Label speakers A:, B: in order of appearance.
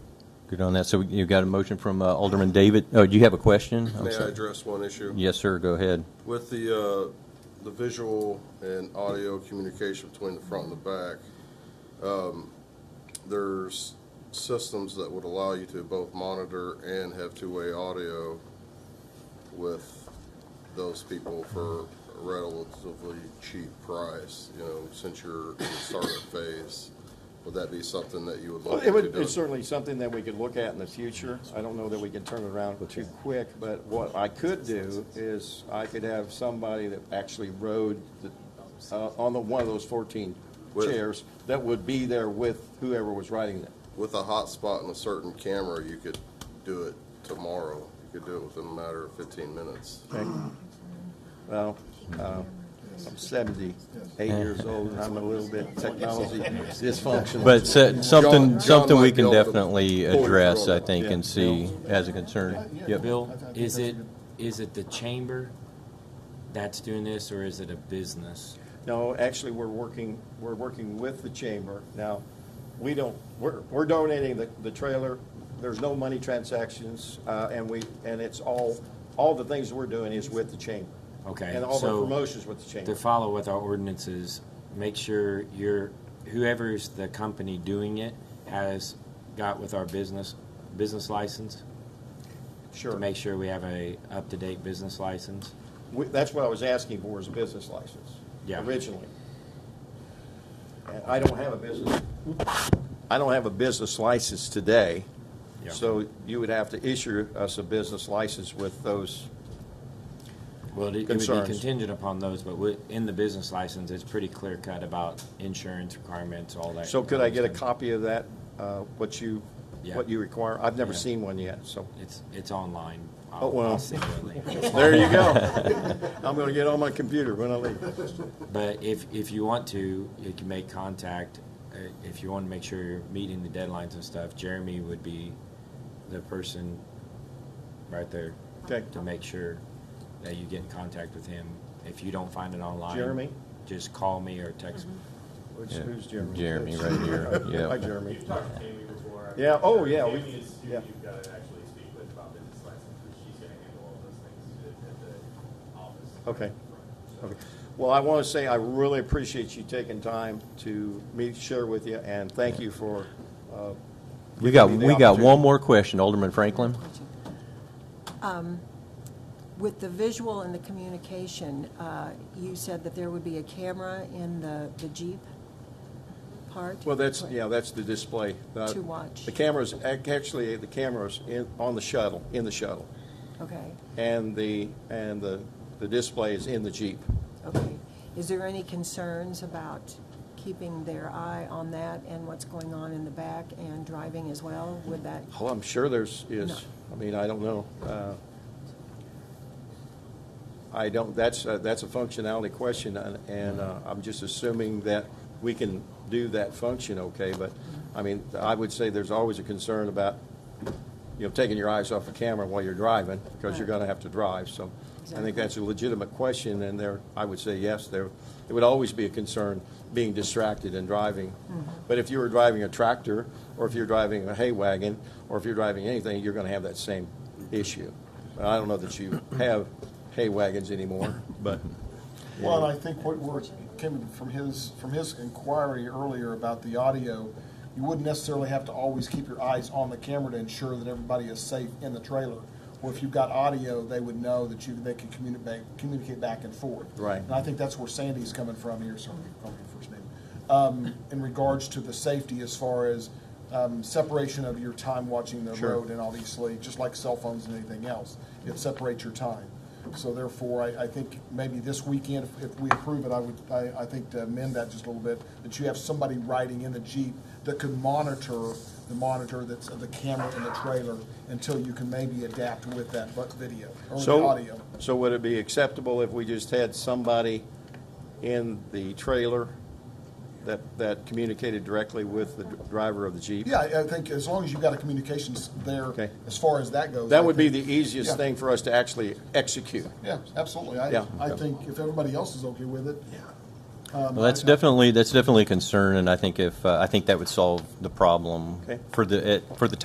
A: Good on that. So you got a motion from uh, Alderman David. Oh, do you have a question? I'm
B: May I
A: sorry.
B: address one issue?
A: Yes, sir, go ahead.
B: With the, uh, the visual and audio communication between the front and the back, um, there's systems that would allow you to both monitor and have two-way audio with those people for a relatively cheap price, you know, since you're in the startup phase. Would that be something that you would
C: Well,
B: look
C: It
B: into
C: would,
B: doing?
C: it's certainly something that we could look at in the future. I don't know that we can turn it around too quick, but what I could do is I could have somebody that actually rode the, uh, on the, one of those fourteen
B: With-
C: chairs that would be there with whoever was riding it.
B: With a hotspot and a certain camera, you could do it tomorrow. You could do it within a matter of 15 minutes.
C: Okay. Well, uh, I'm seventy-eight years old and I'm a little bit technology dysfunctional.
A: But so- something,
B: John
A: something we
B: might be
A: can
B: able to
A: definitely
B: pull you
A: address,
B: through
A: I
B: it.
A: think, and see as a concern. Yep.
D: Bill, is it, is it the chamber that's doing this, or is it a business?
C: No, actually, we're working, we're working with the chamber. Now, we don't, we're, we're donating the, the trailer. There's no money transactions, uh, and we, and it's all, all the things we're doing is with the chamber.
D: Okay,
C: And all the
D: so
C: promotions with the chamber.
D: To follow with our ordinances, make sure your, whoever's the company doing it has got with our business, business license?
C: Sure.
D: To make sure we have a up-to-date business license?
C: We- That's what I was asking for, is a business license.
D: Yeah.
C: Originally. And I don't have a business, I don't have a business license today.
D: Yeah.
C: So you would have to issue us a business license with those
D: Well, it it would be
C: Concerns.
D: contingent upon those, but wi- in the business license, it's pretty clear-cut about insurance requirements, all that.
C: So could I get a
D: kind of
C: copy of that, uh, what you,
D: Yeah.
C: what you require? I've never
D: Yeah.
C: seen one yet, so.
D: stuff. It's, it's online. I'll-
C: Oh, well.
D: I'll send you a link.
C: There you go. I'm gonna get on my computer when I leave.
D: But if, if you want to, you can make contact. Uh, If you want to make sure you're meeting the deadlines and stuff, Jeremy would be the person right there
C: Okay.
D: to make sure that you get in contact with him. If you don't find it online,
C: Jeremy?
D: just call me or text me.
C: Which-
A: Yeah.
C: Who's Jeremy?
A: Jeremy, right here. Yeah.
C: Hi, Jeremy.
E: You've talked to Tammy before.
C: Yeah, oh, yeah, we-
E: Tammy is who
C: yeah.
E: you've got to actually speak with about business license, because she's going to handle all those things at at the office.
C: Okay. Okay. Well, I wanna say I really appreciate you taking time to meet, share with you, and thank you for, uh,
A: We got,
C: Give me the
A: we got
C: opportunity.
A: one more question, Alderman Franklin.
F: With the visual and the communication, uh, you said that there would be a camera in the the Jeep part?
C: well, that's, yeah, that's the display. Uh,
F: To watch.
C: The cameras, ac- actually, the cameras in, on the shuttle, in the shuttle,
F: Okay,
C: and the, and the, the display is in the Jeep.
F: okay. Is there any concerns about keeping their eye on that and what's going on in the back and driving as well? Would that,
C: Oh, I'm sure there's,
F: No.
C: is, I mean, I don't know. Uh, I don't, that's, a- that's a functionality question, and- and uh, I'm just assuming that we can do that function okay, but, I mean, I would say there's always a concern about, you know, taking your eyes off the camera while you're driving, because you're
F: Right.
C: gonna have to drive, so I
F: Exactly.
C: think that's a legitimate question, and there, I would say yes, there, it would always be a concern being distracted and driving.
G: Mm-hmm.
C: But if you were driving a tractor, or if you're driving a hay wagon, or if you're driving anything, you're gonna have that same issue. But I don't know that you have hay wagons anymore, but.
G: Well, and I think what we're, came from his, from his inquiry earlier about the audio, you wouldn't necessarily have to always keep your eyes on the camera to ensure that everybody is safe in the trailer. Or if you've got audio, they would know that you, they can communicate, communicate back and forth.
C: Right.
G: And I think that's where Sandy's coming from here, sorry, I called you first name. Um, in regards to the safety as far as, um, separation of your time watching the
C: Sure.
G: road and obviously, just like cell phones and anything else, it separates your time. So therefore, I, I think maybe this weekend, if, if we approve it, I would, I, I think to amend that just a little bit, that you have somebody riding in the Jeep that could monitor the monitor that's, the camera in the trailer until you can maybe adapt with that bu- video or the
C: So,
G: audio.
C: so would it be acceptable if we just had somebody in the trailer that, that communicated directly with the driver of the Jeep?
G: Yeah, I I think as long as you've got a communications there,
C: Okay.
G: as far as that goes.
C: That
G: I
C: would be
G: think-
C: the easiest thing for us to actually execute.
G: Yeah, absolutely. I,
C: Yeah.
G: I think if everybody else is okay with it. um,
A: Well, that's
G: I- I-
A: definitely, that's definitely a concern, and I think if, uh, I think that would solve the problem
C: Okay.
A: for the, it- for the